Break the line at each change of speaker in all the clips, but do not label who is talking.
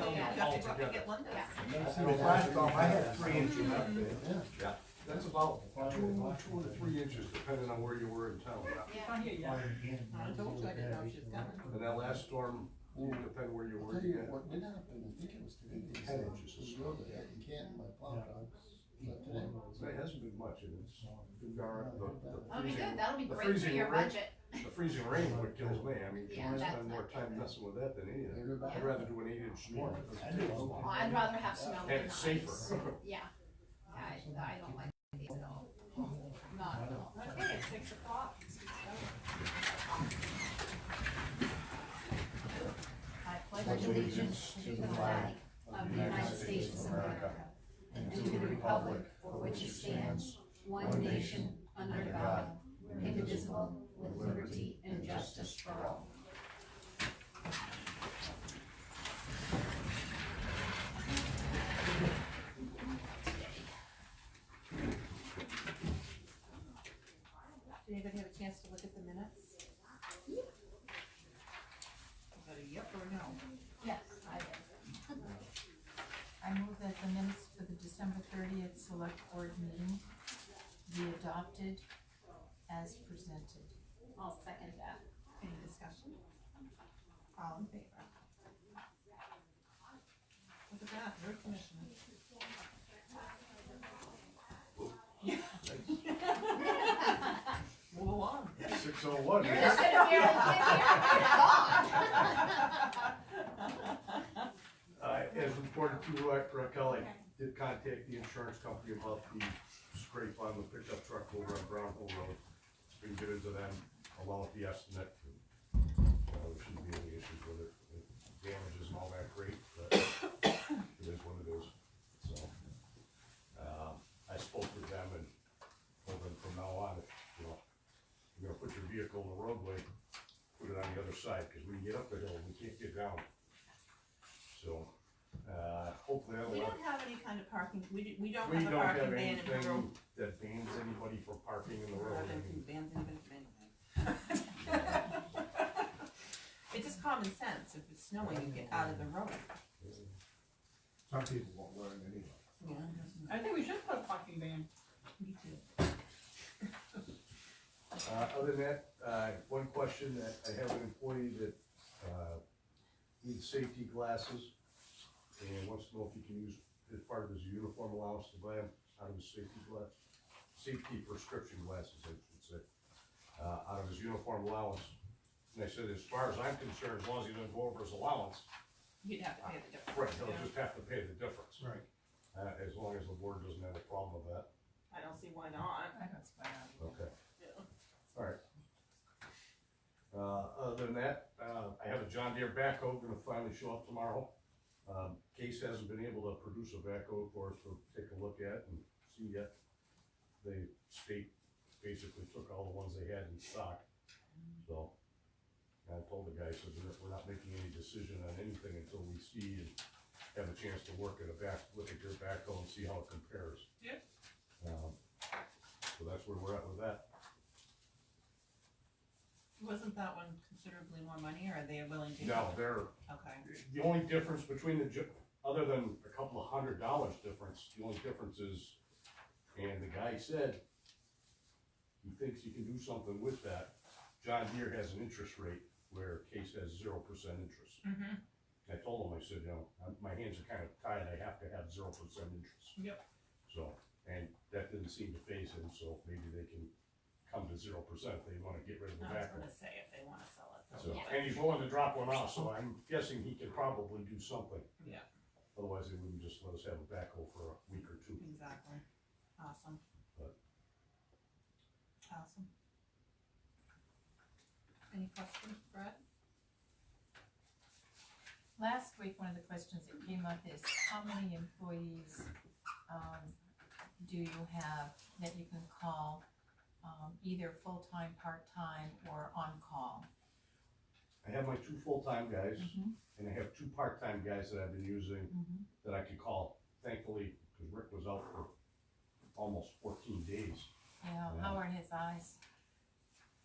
I brought, I get one of those.
I had three inches up there.
Yeah.
That's about two, two to three inches, depending on where you were in town.
If I hear you. I told you, I didn't know she was coming.
And that last storm, depending where you
I'll
were,
tell you
you had
what did happen, I think it was today, they said,
ten inches of
you
snow.
go to Epping Canton, my plow truck, but today,
There hasn't been much, and it's been gar- the- the
That'll be
freezing-
good, that'll be
the
great for
freezing
your
rain-
budget.
The freezing rain would kills me, I mean, you
Yeah,
wanna
that's
spend more
not
time
good.
messing with that than anything.
everybody.
I'd rather do an eight inch storm.
Well, I'd rather have snow
And
than
it's
ice.
safer.
Yeah, I, I don't like these at all. Not at all.
Okay, it's six o'clock.
I pledge allegiance to the flag of the United States of America and to the republic for which it stands, one nation, under God, indivisible, with liberty and justice for all.
Did anybody have a chance to look at the minutes? Is that a yep or a no?
Yes, I did.
I move that the minutes for the December thirtieth select board meeting be adopted as presented.
I'll second that.
Any discussion? All in favor? Look at that, road commissioner. Move along.
Six oh one.
You're just gonna barely get there,
Uh, as reported to Ra- Raquel, I did contact the insurance company about the scrape on the pickup truck over on Brown Hill Road. We can get into them, along with the estimate. Uh, there shouldn't be any issues with it, The damage isn't all that great, but it is what it is, so. Um, I spoke with them and told them from now on, if, you know, you're gonna put your vehicle in the roadway, put it on the other side, cause we can get up the hill, we can't get down. So, uh, hopefully that'll.
We don't have any kind of parking, we, do- we don't
We
have a
don't have
parking ban in the road.
anything that bans anybody from parking in the
We don't
road.
have
I
anything
mean,
bans anybody from anything. It's just common sense, if it's snowing, you get out of the road.
Some people won't learn anyway.
I think we should put a parking ban.
Me too.
Uh, other than that, uh, one question that I have an employee that, uh, needs safety glasses. And wants to know if he can use, as part of his uniform allowance to buy him out of his safety glass, safety prescription glasses, I should say. Uh, out of his uniform allowance. And I said, as far as I'm concerned, as long as he doesn't go over his allowance,
You'd have to pay the difference.
Right,
yeah.
they'll just have to pay the difference.
Right.
Uh, as long as the board doesn't have a problem with that.
I don't see why not.
I don't spy on you.
Okay.
Yeah.
Alright. Uh, other than that, uh, I have a John Deere backhoe gonna finally show up tomorrow. Um, Case hasn't been able to produce a backhoe for us to take a look at and see yet. The state basically took all the ones they had in stock, so. I told the guy, I said, we're, we're not making any decision on anything until we see and have a chance to work at a back, look at your backhoe and see how it compares.
Yep.
Um, so that's where we're at with that.
Wasn't that one considerably more money, or are they willing to?
No, they're,
Okay,
the only difference between the, ju- other than a couple of hundred dollars difference, the only difference is, and the guy said, he thinks he can do something with that. John Deere has an interest rate where Case has zero percent interest.
Mhm.
I told him, I said, you know, I'm- my hands are kind of tied, I have to have zero percent interest.
Yep.
So, and that didn't seem to phase him, so maybe they can come to zero percent if they wanna get rid of the
I was
back.
gonna say, if they wanna sell it. they'll
So,
do it.
and he's willing to drop one off, so I'm guessing he could probably do something.
Yeah.
Otherwise, they wouldn't just let us have a backhoe for a week or two.
Exactly, awesome.
But-
Awesome. Any questions, Brad?
Last week, one of the questions that came up is how many employees, um, do you have that you can call, um, either full-time, part-time, or on-call?
I have my two full-time guys,
Mhm.
and I have two part-time guys that I've been using
Mhm.
that I could call, thankfully, because Rick was out for almost fourteen days.
Yeah, how are his eyes?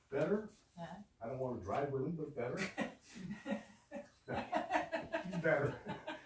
Better,
Yeah.
I don't wanna drive with him, but better. Better.